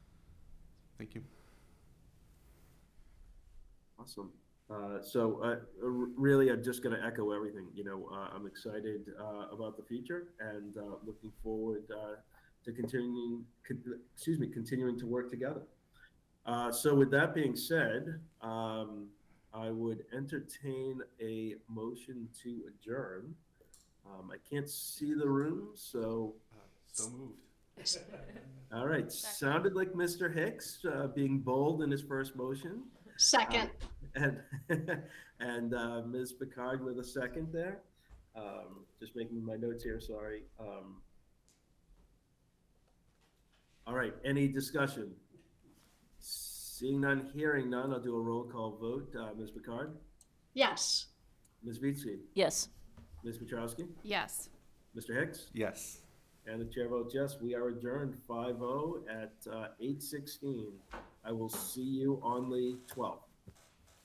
Thank you. Awesome. Uh, So uh, r- really, I'm just going to echo everything. You know, uh, I'm excited uh, about the future and uh, looking forward uh, to continuing, con- excuse me, continuing to work together. Uh, So with that being said, um, I would entertain a motion to adjourn. Um, I can't see the room, so, Uh, So moved. all right, sounded like Mr. Hicks uh, being bold in his first motion. Um, Second, And, and uh, Ms. Picard with a second there. Um, Just making my notes here, sorry. Um, All right, any discussion? Seeing none, hearing none, I'll do a roll call vote. Uh, Ms. Picard, yes. Ms. Beatsky, Yes. Ms. Petrowski, Yes. Mr. Hicks, Yes. and the chair votes yes. We are adjourned 5-0 at uh, 8:16. I will see you on the 12th.